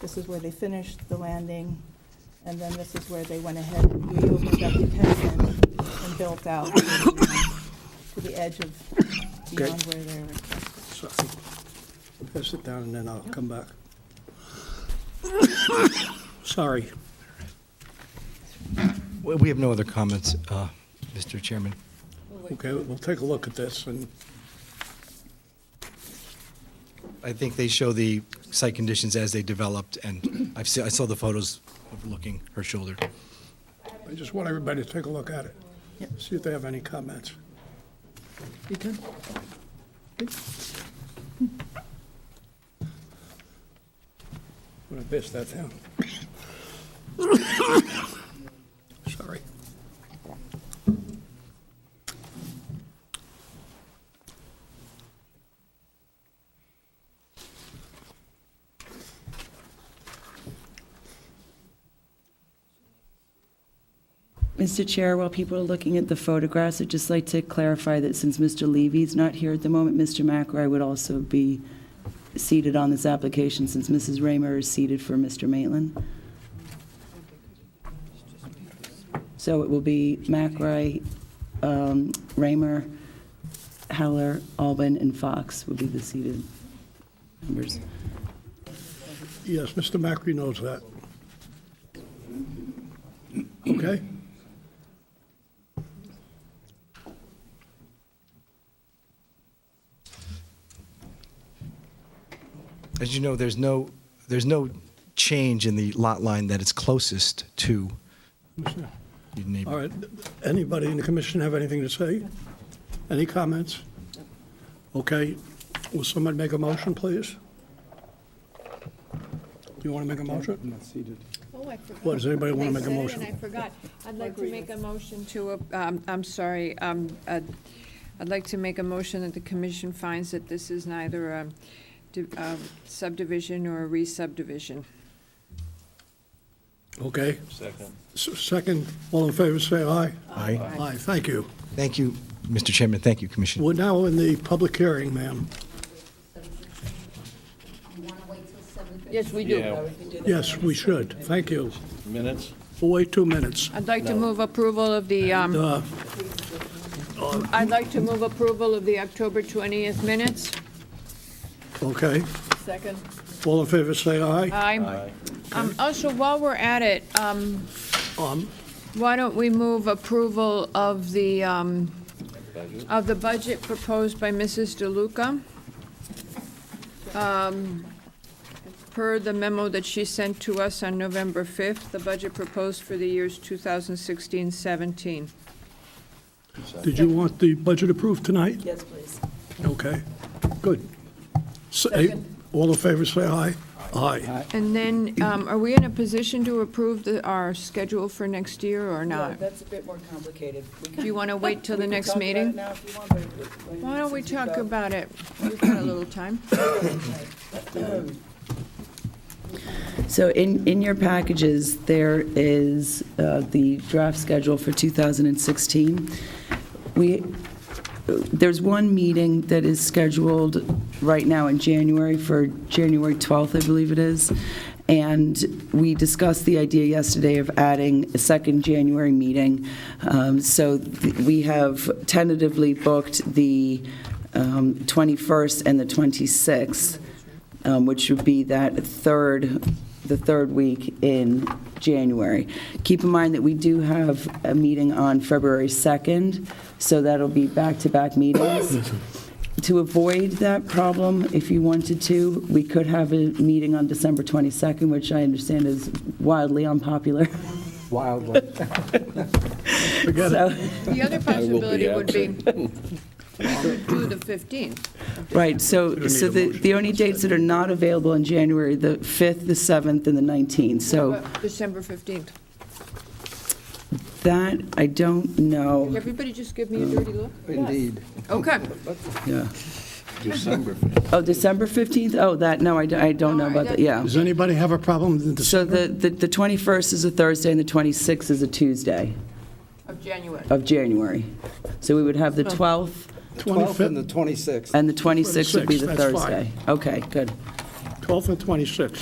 This is where they finished the landing, and then this is where they went ahead and reopened up the pavement and built out to the, um, to the edge of beyond where they were. So I think I'll sit down and then I'll come back. Sorry. We we have no other comments, uh, Mr. Chairman. Okay, we'll take a look at this and, I think they show the site conditions as they developed, and I've se- I saw the photos overlooking her shoulder. I just want everybody to take a look at it. Yep. See if they have any comments. You can. I'm gonna bist that down. Sorry. Mr. Chair, while people are looking at the photographs, I'd just like to clarify that since Mr. Levy's not here at the moment, Mr. McRae would also be seated on this application, since Mrs. Raymer is seated for Mr. Maitland. So it will be McRae, um, Raymer, Heller, Albin, and Fox will be the seated members. Yes, Mr. Macri knows that. Okay? As you know, there's no, there's no change in the lot line that is closest to your All neighbor. right, anybody in the commission have anything to say? Any comments? Okay, will somebody make a motion, please? Do you want to make a motion? Not seated. Oh, I forgot. What, does anybody wanna make a I said it motion? And I forgot. I'd like to make a motion to, a- um, I'm sorry, um, uh, I'd like to make a motion that the commission finds that this is neither a di- a subdivision or a re-subdivision. Okay. Second. Second, all in favor, say aye. Aye. Aye, thank you. Thank you, Mr. Chairman. Thank you, Commissioner. We're now in the public hearing, ma'am. Yes, we do. Yes, we should, thank you. Minutes? We'll wait two minutes. I'd like to move approval of the, um, Uh, I'd like to move approval of the October 20th minutes. Okay, Second. all in favor, say aye. Aye. Um, Also, while we're at it, um, Um, Why don't we move approval of the, um, of the budget proposed by Mrs. DeLuca? Um, Per the memo that she sent to us on November 5th, the budget proposed for the years 2016-17. Did you want the budget approved tonight? Yes, please. Okay, good. So, eh, All in favor, say aye. Aye. And then, um, are we in a position to approve the- our schedule for next year or No, not? that's a bit more complicated. We Do can- you want to wait till we the can next talk about it meeting? now if you want, but it- Why don't we since we've talk got- about it? We've got a little time. So in, in your packages, there is uh, the draft schedule for 2016. We, there's one meeting that is scheduled right now in January for January 12th, I believe it is. And we discussed the idea yesterday of adding a second January meeting. Um, So th- we have tentatively booked the um, 21st and the 26th um, which would be that third, the third week in January. Keep in mind that we do have a meeting on February 2nd, so that'll be back-to-back meetings. To avoid that problem, if you wanted to, we could have a meeting on December 22nd, which I understand is wildly unpopular. Forget it. So, The other possibility would be do the 15th. right, so, so the, the only dates that are not available in January, the 5th, the 7th, and the 19th. So But December 15th. that, I don't know. Everybody just give me a dirty look? Indeed. Okay. Yeah. December. Oh, December 15th? Oh, that, no, I don't- I don't know about that, yeah. Does anybody have a problem with So December? the the the 21st is a Thursday, and the 26th is a Tuesday Of January. of January. So we would have the 12th, 12th and the 25th, 26th. and the 26th would be the 26th, that's fine. Thursday. Okay, good. 12th and 26th.